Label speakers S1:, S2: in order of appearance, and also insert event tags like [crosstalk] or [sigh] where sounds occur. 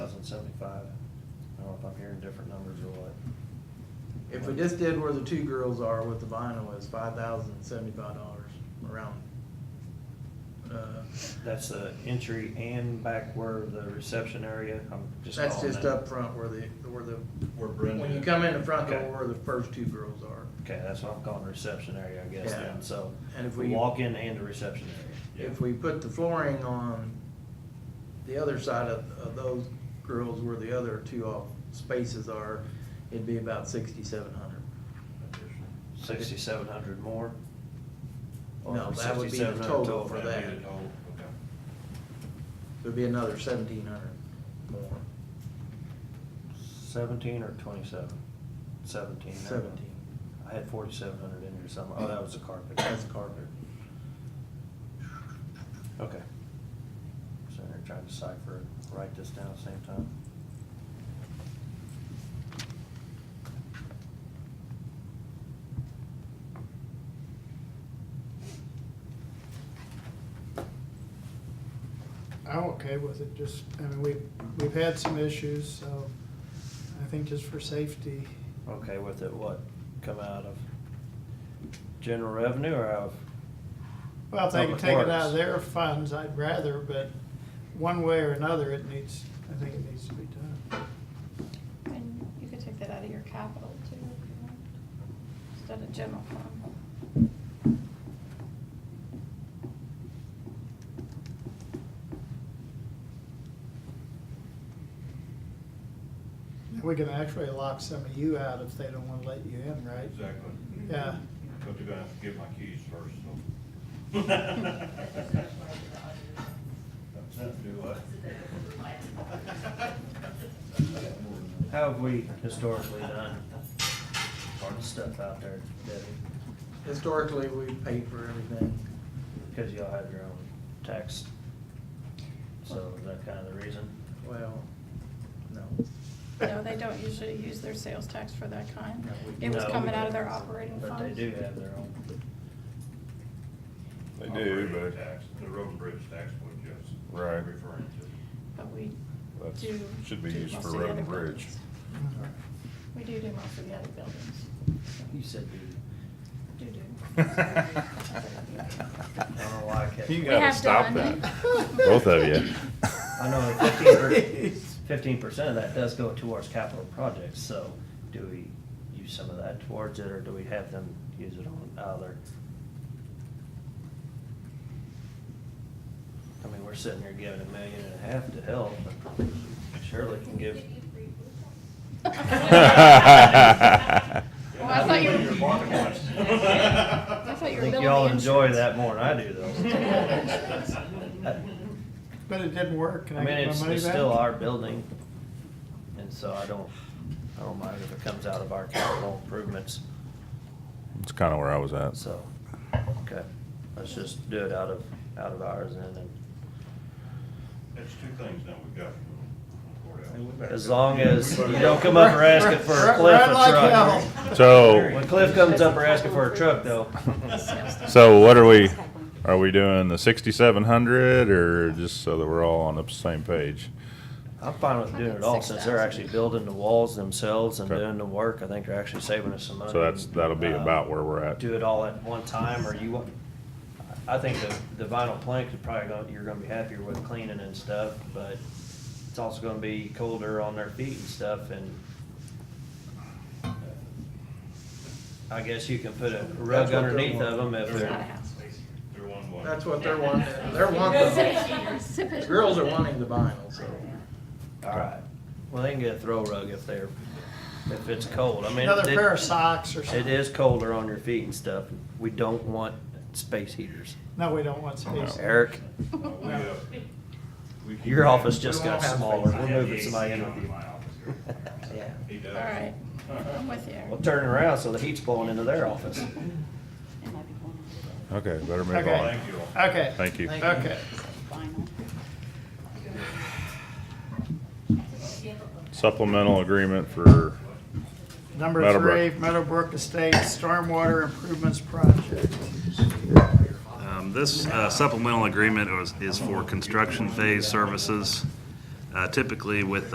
S1: seventy-five. I don't know if I'm hearing different numbers or what.
S2: If we just did where the two girls are with the vinyl, it's five thousand seventy-five dollars around. Uh,
S1: That's the entry and back where the reception area, I'm just
S2: That's
S1: calling
S2: just
S1: that-
S2: up front where the, where the,
S3: Where Brenda.
S2: when you come in the front
S1: Okay.
S2: door, where the first two girls are.
S1: Okay, that's what I'm calling the reception area, I guess,
S2: Yeah.
S1: then, so.
S2: And if
S1: the
S2: we-
S1: Walk-in and the reception
S3: Yeah.
S2: If we put the flooring on the other side of, of those girls where the other two off spaces are, it'd be about sixty-seven hundred.
S1: area, sixty-seven hundred more. Or
S2: No, that would be the
S1: 6,700
S2: total for
S1: that'd
S2: that.
S1: be the total.
S2: There'd be another seventeen hundred more,
S1: Seventeen or twenty-seven? Seventeen. I don't know.
S2: seventeen.
S1: I had forty-seven hundred in here somewhere. Oh, that was the carpet.
S2: That's carpet.
S1: Okay. Sitting here trying to decipher it, write this down at the same time.
S4: I'm okay with it, just, I mean, we've, we've had some issues, so I think just for safety,
S1: Okay, with it, what come out of general revenue or out of?
S4: well, if they can
S1: Public
S4: take it out
S1: Works.
S4: of their funds, I'd rather, but one way or another, it needs, I think it needs to be done.
S5: And you could take that out of your capital too, if you want, instead of general fund.
S4: We can actually lock some of you out if they don't wanna let you in, right?
S3: Exactly.
S4: Yeah.
S3: But they're gonna have to get my keys first, so. Do what?
S1: How have we historically done? Hard stuff out there, Debbie,
S2: Historically, we paid for everything.
S1: because y'all have your own tax. So is that kind of the reason?
S2: Well, no.
S5: No, they don't usually use their sales tax for that kind.
S2: No, we-
S5: It was
S1: No, we
S5: coming out
S1: don't.
S5: of their operating funds.
S1: But they do have their own.
S6: They do,
S3: Operating
S6: but
S3: tax, The road and bridge tax, what Jeff's
S6: Right.
S3: referring to.
S5: But we
S6: That's-
S5: do.
S6: should be
S5: do
S6: used
S5: most
S6: for
S5: of the
S6: road
S5: other
S6: and bridge.
S5: buildings. We do do most of the other buildings.
S1: You said the,
S5: Do
S1: [laughs]
S5: do.
S1: I don't know why I kept.
S6: You
S5: We
S6: gotta
S5: have
S6: stop
S5: done.
S6: that. Both of you.
S1: I know fifteen
S4: [laughs]
S1: per, fifteen percent of that does go towards capital projects, so do we use some of that towards it, or do we have them use it on other? I mean, we're sitting here giving a million and a half to help, but surely can
S5: [laughs]
S1: give,
S5: Well, I thought you were- I
S3: I
S5: thought
S1: I
S5: you were
S1: think
S5: building
S1: y'all enjoy
S5: insurance.
S1: that more than I do,
S5: [laughs]
S1: though.
S4: But it didn't work, can
S1: I
S4: I
S1: mean,
S4: get my
S1: it's,
S4: money
S1: it's still
S4: back?
S1: our building, and so I don't, I don't mind if it comes out of our capital improvements,
S6: It's kinda where I was at.
S1: so, okay. Let's just do it out of, out of ours and then,
S3: That's two things now we've got from the courthouse.
S1: as long as you don't come up or ask it for a cliff
S4: Right like
S1: or truck.
S4: hell.
S1: When
S6: So,
S1: Cliff comes up or asking for a truck though, [laughs]
S6: so what are we, are we doing the sixty-seven hundred or just so that we're all on the same page?
S1: I'm fine with doing it all since they're actually building the walls themselves and
S6: Okay.
S1: doing the work. I think they're actually saving us some money.
S6: So that's, that'll be
S1: Uh,
S6: about where we're at.
S1: do it all at one time, or you, want- I think the, the vinyl plank is probably gonna, you're gonna be happier with cleaning and stuff, but it's also gonna be colder on their feet and stuff, and uh, I guess you can put a rug
S2: That's what they're
S1: underneath of them
S2: wanting.
S1: if
S5: It's not a
S1: they're,
S5: house.
S3: They're one way.
S2: That's what they're wanting, they're wanting,
S5: [laughs]
S2: the girls are wanting the vinyl, so.
S1: all right. Well, they can get a throw rug if they're, if it's cold, I mean.
S4: Another
S1: it-
S4: pair of socks or something.
S1: It is colder on your feet and stuff, we don't want space heaters.
S4: No, we don't want space.
S1: Eric,
S3: No, we, uh, we keep-
S1: your office just
S2: We won't
S1: got
S2: have
S1: smaller,
S2: space.
S1: we're moving somebody in with you.
S2: [laughs]
S1: Yeah.
S3: He does.
S5: All right, I'm with
S1: Well,
S5: you.
S1: turn it around so the heat's blowing into their office.
S6: Okay, better move
S4: Okay.
S6: on.
S3: Thank you all.
S4: Okay,
S6: Thank you.
S4: okay.
S6: Supplemental agreement for,
S4: Number three,
S6: Meadowbrook.
S4: Meadowbrook Estates Stormwater Improvements Project.
S7: Um, This uh, supplemental agreement is- is for construction phase services. Uh, Typically with